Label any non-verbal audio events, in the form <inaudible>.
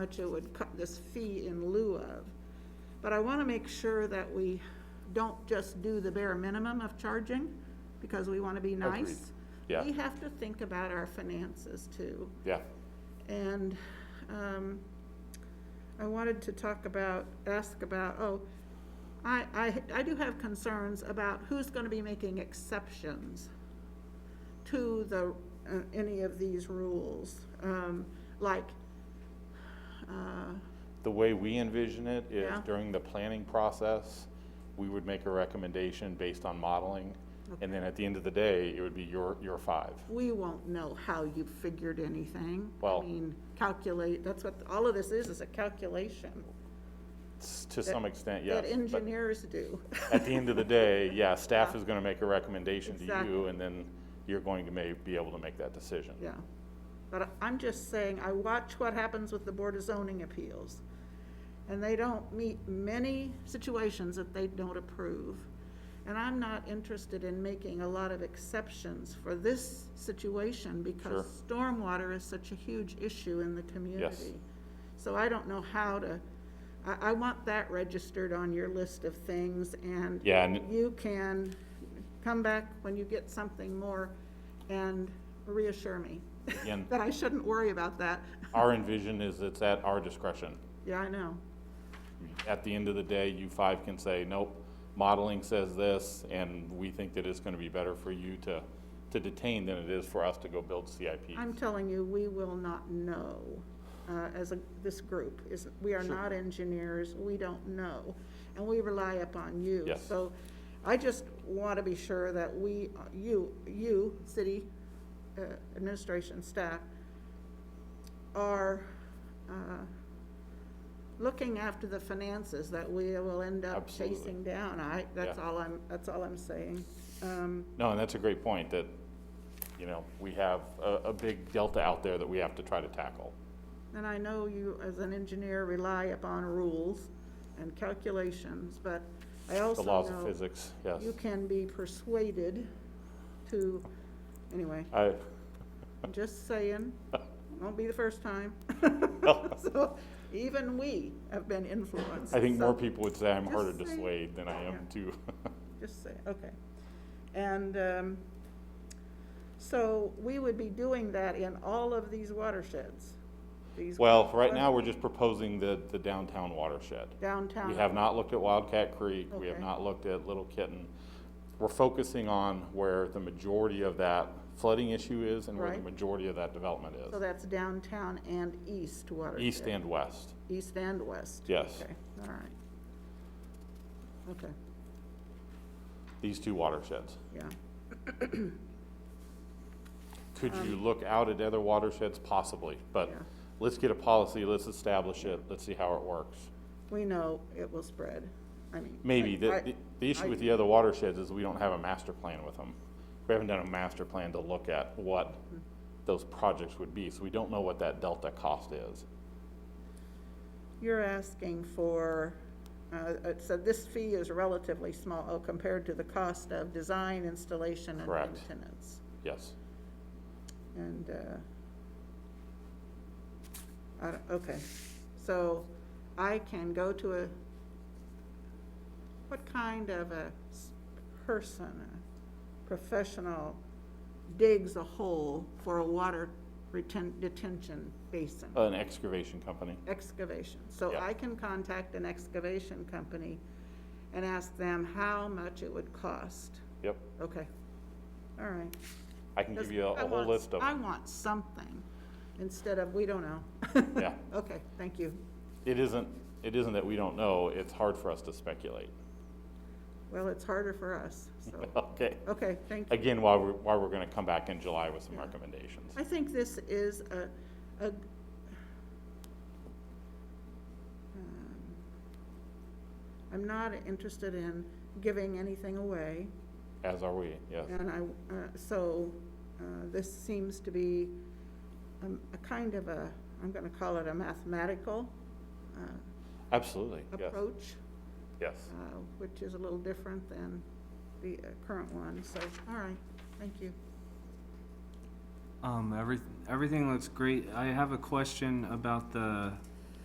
much it would cut this fee in lieu of. But I want to make sure that we don't just do the bare minimum of charging, because we want to be nice. Yeah. We have to think about our finances too. Yeah, And um, I wanted to talk about, ask about, oh, I, I, I do have concerns about who's going to be making exceptions to the, uh, any of these rules. Um, Like, uh, the way we envision it is Yeah. during the planning process, we would make a recommendation based on modeling. And then at the end of the day, it would be your, your five. we won't know how you figured anything. Well- I mean, calculate, that's what, all of this is, is a calculation. S- To some extent, yes. That but engineers do. <laughs> At the end of the day, yeah, staff is gonna make a recommendation to you, Exactly. and then you're going to may, be able to make that decision. Yeah, but I- I'm just saying, I watch what happens with the Board of Zoning Appeals. And they don't meet many situations that they don't approve. And I'm not interested in making a lot of exceptions for this situation because stormwater is such a huge issue in the community. So I don't know how to, I, I want that registered on your list of things and Yeah, and- you can come back when you get something more and reassure me Again- <laughs> that I shouldn't worry about that. Our envision is it's at our discretion. Yeah, I know. At the end of the day, you five can say, nope, modeling says this, and we think that it's gonna be better for you to, to detain than it is for us to go build CIPs. I'm telling you, we will not know uh, as a, this group is, we are Sure. not engineers, we don't know, and we rely upon you. Yes. So I just want to be sure that we, you, you, city uh, administration staff are uh, looking after the finances that we will end up Absolutely. chasing down. I, that's Yeah. all I'm, that's all I'm saying. Um, No, and that's a great point, that, you know, we have a, a big delta out there that we have to try to tackle. And I know you, as an engineer, rely upon rules and calculations, but I also The know. laws of physics, yes. You can be persuaded to, anyway, I, I'm just saying, won't be the first time. <laughs> So even we have been influenced. I think more so people would say I'm Just harder to say- dissuade than I am <laughs> to, Just say, okay. And, um, so we would be doing that in all of these watersheds. these well, right now, we're just proposing the, the downtown watershed. Downtown. We have not looked at Wildcat Creek, we have Uh-huh. Okay. not looked at Little Kitten. We're focusing on where the majority of that flooding issue is and where the Right. majority of that development So is, that's downtown and east watershed. east and west. East and west? Yes. Okay, all right. Okay, these two watersheds. yeah, Could you look out at other watersheds? Possibly, but Yeah. let's get a policy, let's establish it, let's see how it works. we know it will spread, I mean. Maybe, I- the, the- the issue with the other watersheds is we don't have a master plan with them. We haven't done a master plan to look at what those projects would be, so we don't know what that delta cost is. You're asking for, uh, it said this fee is relatively small oh, compared to the cost of design, installation, and Correct. maintenance. Yes, And, uh, I don't, okay, so I can go to a, what kind of a s- person, a professional digs a hole for a water reten- detention basin? an excavation company. Excavation, so Uh. Yeah. I can contact an excavation company and ask them how much it would cost. Yep, Okay, all right. I can give Because you a I a whole want- list of I them. want something instead of, we don't know. Yeah. <laughs> Okay, thank you. It isn't, it isn't that we don't know, it's hard for us to speculate. Well, it's harder for us, so, <laughs> Okay. okay, thank you. Again, why we're, why we're gonna come back in July with some recommendations. I think this is a, a, um, I'm not interested in giving anything away, As are we, yes. and I, uh, so, uh, this seems to be um, a kind of a, I'm gonna call it a mathematical, uh, Absolutely, yes, approach. yes. uh, which is a little different than the uh, current one, so, all right, thank you. Um, every, everything looks great. I have a question about the